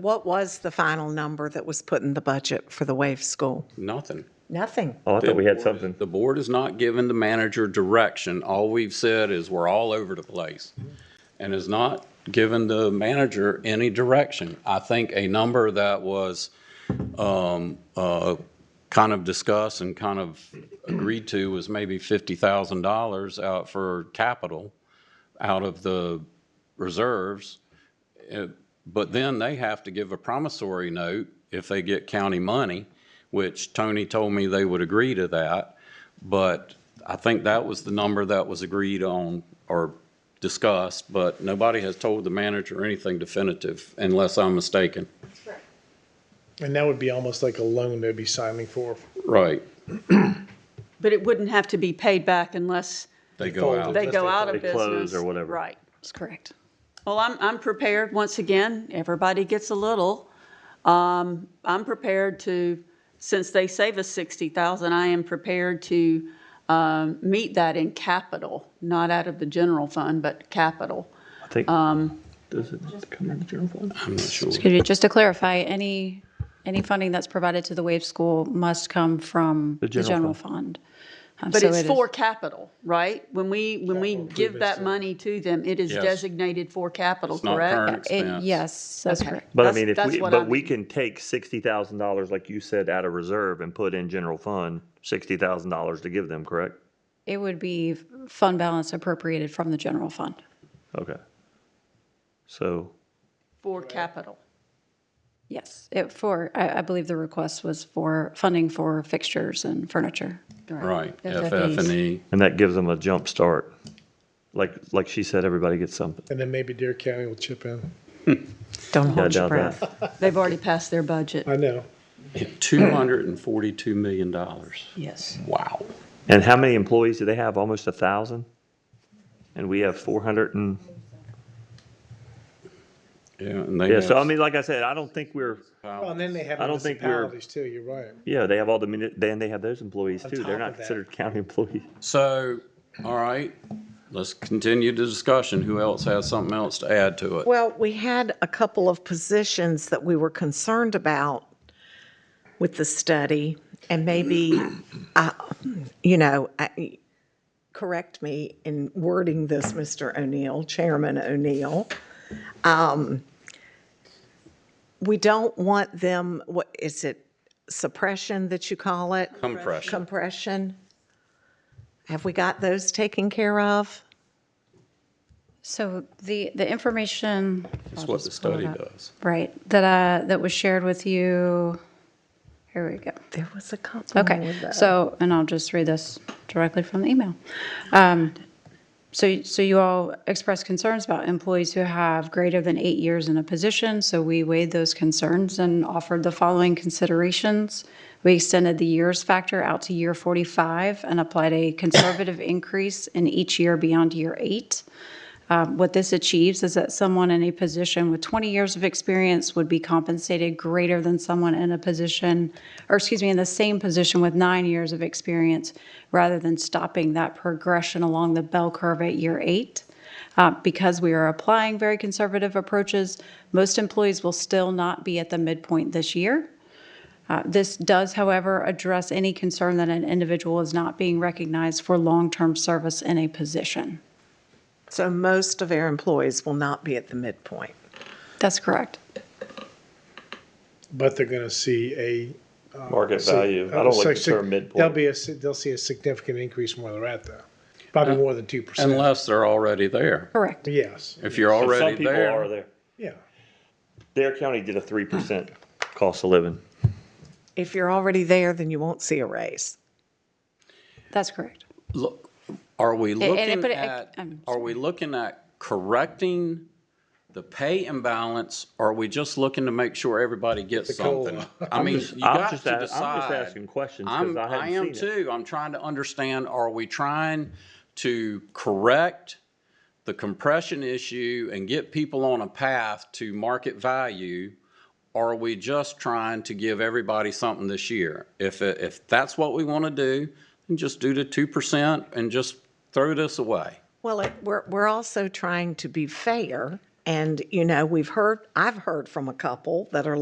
What was the final number that was put in the budget for the wave school? Nothing. Nothing. Oh, I thought we had something. The board is not giving the manager direction. All we've said is we're all over the place and is not giving the manager any direction. I think a number that was um, uh, kind of discussed and kind of agreed to was maybe $50,000 out for capital out of the reserves. Uh, But then they have to give a promissory note if they get county money, which Tony told me they would agree to that. But I think that was the number that was agreed on or discussed, but nobody has told the manager anything definitive unless I'm mistaken. And that would be almost like a loan they'd be signing for. Right, But it wouldn't have to be paid back unless they go out. they go out of They business. close or whatever. Right, that's correct. Well, I'm, I'm prepared, once again, everybody gets a little. Um, I'm prepared to, since they save us 60,000, I am prepared to um, meet that in capital, not out of the general fund, but capital. I think, does it come in the general fund? I'm not sure. Excuse me, just to clarify, any, any funding that's provided to the Wave School must come from the general general fund. Um, But so it's it is- for capital, right? When we, when we give that money to them, it is Yes. designated for capital, Not current correct? Uh, it- expense. Yes, that's Okay. correct. But I That's- mean, if that's we, what but I'm- we can take sixty thousand dollars, like you said, out of reserve and put in general fund, sixty thousand dollars to give them, correct? It would be fund balance appropriated from the general fund. Okay. So, For capital. Yes, it, for, I, I believe the request was for funding for fixtures and furniture. Right, FFEs. FF and E. and that gives them a jump start. Like, like she said, everybody gets something. And then maybe Deer County will chip in. Don't Yeah, hold your doubt that. breath. They've already passed their budget. I know. E. $242 million. Yes. Wow. And how many employees do they have? Almost a thousand? And we have four hundred and, Yeah, and they yeah, so I have- mean, like I said, I don't think we're, Well, and then they have I don't think we're- municipalities too, you're right. yeah, they have all the, mini- then they have those employees too. top They're of not that. considered county employees. So, all right, let's continue the discussion. Who else has something else to add to it? Well, we had a couple of positions that we were concerned about with the study, and maybe, I- you know, I- correct me in wording this, Mr. O'Neill, Chairman O'Neill. Um, We don't want them, what, is it suppression that you call it? Compression. Compression? Have we got those taken care of? So the, the information, That's what the study does. right, that, uh, that was shared with you, here we go. There was a couple Okay, so, and I'll just read this directly from the email. Um, So, so you all expressed concerns about employees who have greater than eight years in a position, so we weighed those concerns and offered the following considerations. We extended the years factor out to year 45 and applied a conservative increase in each year beyond year eight. Um, What this achieves is that someone in a position with 20 years of experience would be compensated greater than someone in a position, or excuse me, in the same position with nine years of experience, rather than stopping that progression along the bell curve at year eight. Uh, Because we are applying very conservative approaches, most employees will still not be at the midpoint this year. Uh, This does, however, address any concern that an individual is not being recognized for long-term service in a position. So most of our employees will not be at the midpoint. That's correct. But they're going to see a. Market see- value. I uh, don't like the sig- sig- term They'll midpoint. be a, si- they'll see a significant increase from where they're at though. Probably more than 2%. Uh, Unless they're already there. Correct. Yes, If you're But already Some people are there, there. yeah. Dare County did a three percent cost of living. If you're already there, then you won't see a raise. That's correct. look, are we and looking put it- at, I'm are we looking at correcting the pay imbalance? Or are we just looking to make sure everybody gets something? I mean, you I'm got just to a- I'm just decide. asking questions 'cause I'm, I haven't I am seen too. I'm trying to understand, are we trying to correct the compression issue and get people on a path to market value? Or are we just trying to give everybody something this year? If, it- if that's what we want to do, then just do the two percent and just throw this away. Well, it- we're, we're also trying to be fair And, you know, we've heard, I've heard from a couple that are